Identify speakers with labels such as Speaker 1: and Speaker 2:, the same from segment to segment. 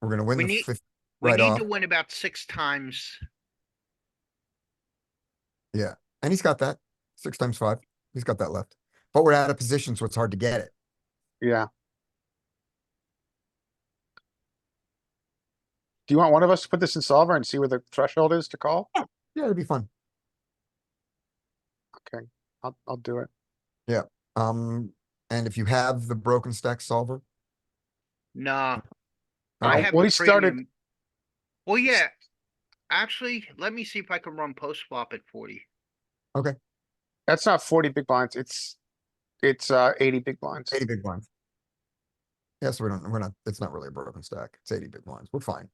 Speaker 1: We're gonna win
Speaker 2: We
Speaker 1: the
Speaker 2: need-
Speaker 1: fifth
Speaker 2: We
Speaker 1: right
Speaker 2: need
Speaker 1: off.
Speaker 2: to win about six times.
Speaker 1: And he's got that. Six times five. He's got that left. But we're out of position, so it's hard to get it.
Speaker 3: Yeah. Do you want one of us to put this in solver and see where the threshold is to call?
Speaker 1: Yeah, it'd be fun.
Speaker 3: Okay, I'll, I'll do it.
Speaker 1: Um, and if you have the broken stack solver,
Speaker 2: Nah.
Speaker 1: Uh,
Speaker 2: I have
Speaker 3: well,
Speaker 2: the
Speaker 3: he started-
Speaker 2: premium. Well, yeah. Actually, let me see if I can run post flop at forty.
Speaker 3: That's not forty big blinds, it's, it's, uh, eighty big blinds.
Speaker 1: eighty big blinds. Yeah, so we don't, we're not, it's not really a broken stack. It's eighty big blinds. We're fine.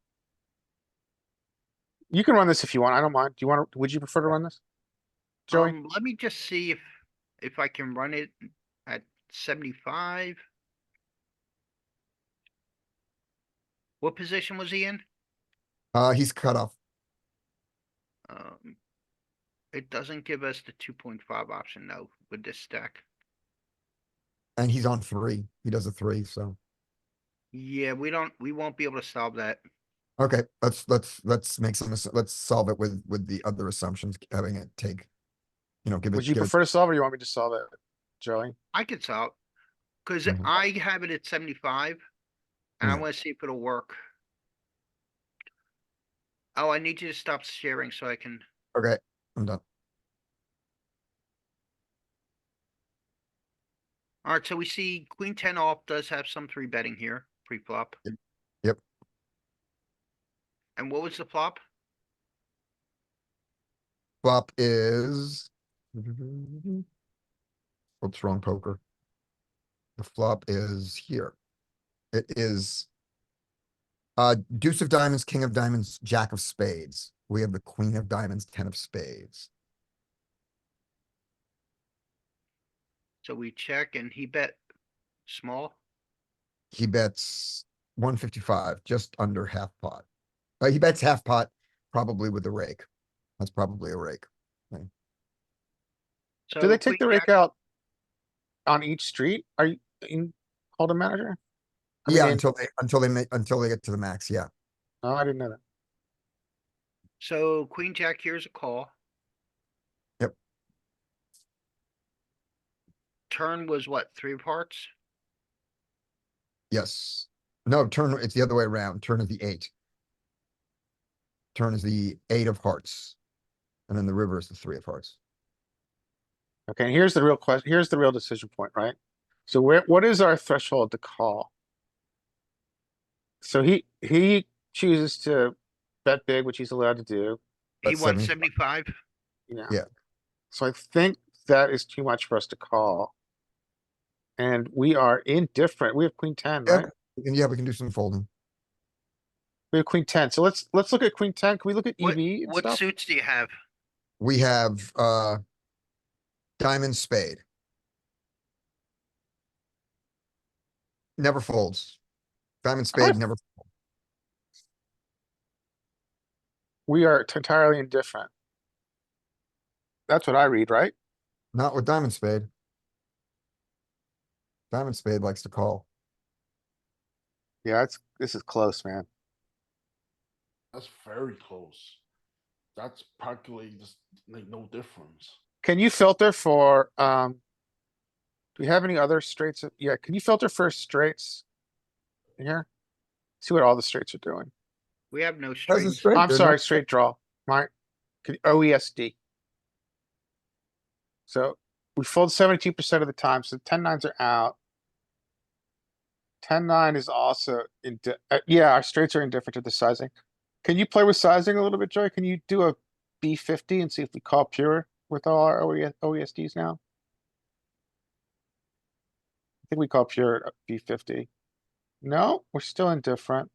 Speaker 3: You can run this if you want, I don't mind. Do you want, to? would you prefer to run this? Joey,
Speaker 2: Um, let me just see if, if I can run it at seventy-five. What position was he in?
Speaker 1: Uh, he's cut off.
Speaker 2: Um, it doesn't give us the two point five option though with this stack.
Speaker 1: And he's on three. He does a three, so,
Speaker 2: Yeah, we don't, we won't be able to solve that.
Speaker 1: okay, let's, let's, let's make some, assu- let's solve it with, with the other assumptions, having it take. You know, give it,
Speaker 3: would you
Speaker 1: give it,
Speaker 3: prefer to solve or you want me to solve it, Joey?
Speaker 2: I could solve. Cause
Speaker 3: Mm-hmm.
Speaker 1: Mhm.
Speaker 2: I have it at seventy-five. And I
Speaker 1: Yeah.
Speaker 2: wanna see if it'll work. Oh, I need you to stop sharing so I can,
Speaker 1: okay, I'm done.
Speaker 2: alright, so we see queen ten off does have some three betting here, pre-flop.
Speaker 1: Yep. Yep.
Speaker 2: And what was the flop?
Speaker 1: Flop is. Oops, wrong poker. The flop is here. It is. Uh, deuce of diamonds, king of diamonds, jack of spades. We have the queen of diamonds, ten of spades.
Speaker 2: So we check and he bet small.
Speaker 1: He bets one fifty-five, just under half pot. Uh, he bets half pot, probably with a rake. That's probably a rake.
Speaker 3: Do they
Speaker 2: So
Speaker 3: take the
Speaker 2: queen
Speaker 3: rake
Speaker 2: jack-
Speaker 3: out on each street? Are you in Holden manager? I mean,
Speaker 1: Yeah,
Speaker 3: in-
Speaker 1: until they, until they make, until they get to the max, yeah.
Speaker 3: Oh, I didn't know that.
Speaker 2: So queen jack here's a call.
Speaker 1: Yep.
Speaker 2: Turn was what, three of hearts?
Speaker 1: Yes. No, turn, it's the other way around. Turn is the eight. Turn is the eight of hearts. And then the river is the three of hearts.
Speaker 3: Okay, and here's the real question, here's the real decision point, right? So where, what is our threshold to call? So he, he chooses to bet big, which he's allowed to do,
Speaker 2: He
Speaker 1: That's
Speaker 2: won
Speaker 1: 75.
Speaker 2: seventy-five.
Speaker 3: you know?
Speaker 1: Yeah.
Speaker 3: So I think that is too much for us to call. And we are indifferent, we have queen ten,
Speaker 1: Yeah.
Speaker 3: right?
Speaker 1: And yeah, we can do some folding.
Speaker 3: We have queen ten, so let's, let's look at queen ten, can we look at
Speaker 2: What-
Speaker 3: EV E and
Speaker 2: What
Speaker 3: stuff?
Speaker 2: suits do you have?
Speaker 1: We have, uh, diamond spade. Never folds. Diamond
Speaker 3: I might-
Speaker 1: spade never,
Speaker 3: We are t- entirely indifferent. That's what I read, right?
Speaker 1: not with diamond spade. Diamond spade likes to call.
Speaker 3: Yeah, it's, this is close, man.
Speaker 4: That's very close. That's practically just like no difference.
Speaker 3: Can you filter for, um, do we have any other straights? of- Yeah, can you filter for straights? in Here? See what all the straights are doing.
Speaker 2: We have no
Speaker 1: Doesn't
Speaker 2: straights.
Speaker 1: straight,
Speaker 3: I'm
Speaker 1: there's no-
Speaker 3: sorry, straight draw, my, could- OESD. E So we fold seventy-two percent of the time, so ten nines are out. Ten nine is also in, yeah, our straights are indifferent to the sizing. Can you play with sizing a little bit, Joey? Can you do a B fifty and see if we call pure with all our E OE OESDs now? I think we call pure B fifty. No, we're still indifferent.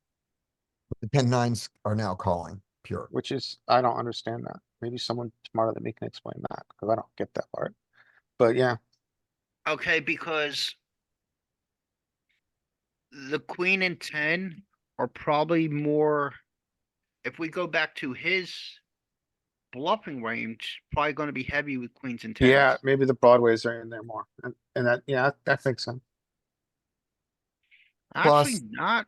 Speaker 1: The ten nines are now calling pure.
Speaker 3: Which is, I don't understand that. Maybe someone smarter than me can explain that, because I don't get that part. But yeah,
Speaker 2: Okay, because the queen and ten are probably more, if we go back to his bluffing range, probably gonna be heavy with queens and tens.
Speaker 3: yeah, maybe the broadways are in there more, and, and that, yeah, I- I think so.
Speaker 1: plus-
Speaker 2: Actually, not